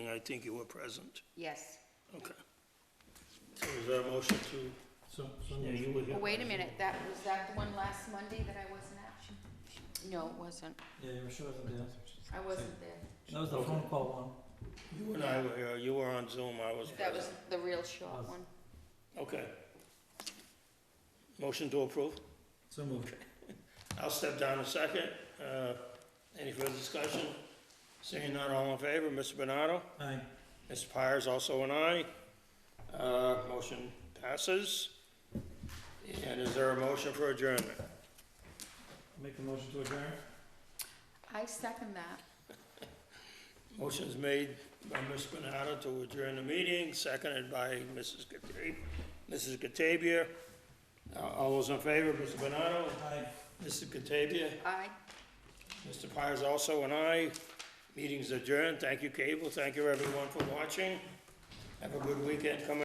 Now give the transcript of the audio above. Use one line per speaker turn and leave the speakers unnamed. I think you were present.
Yes.
Okay. So is there a motion to, so, Sonia, you were here?
Well, wait a minute, that, was that the one last Monday that I wasn't at? No, it wasn't.
Yeah, you were sure wasn't there.
I wasn't there.
That was the phone call
You and I were here, you were on Zoom, I was
That was
present.
the real short one.
Okay. Motion to approve?
one. So moved.
I'll step down a second. Uh, Any further discussion? Seeing none, all in favor, Mr. Bernardo?
Aye.
Mr. Pyer is also an aye. Uh, Motion passes. And is there a motion for adjournment?
Make the motion to adjourn?
I second that.
Motion's made by Ms. Bernardo to adjourn the meeting, seconded by Mrs. Gata- Mrs. Catavia. Uh, All those in favor, Mr. Bernardo?
Aye.
Mrs. Catavia?
Aye.
Mr. Pyer is also an aye. Meeting's adjourned. Thank you, Cable. Thank you, everyone, for watching. Have a good weekend coming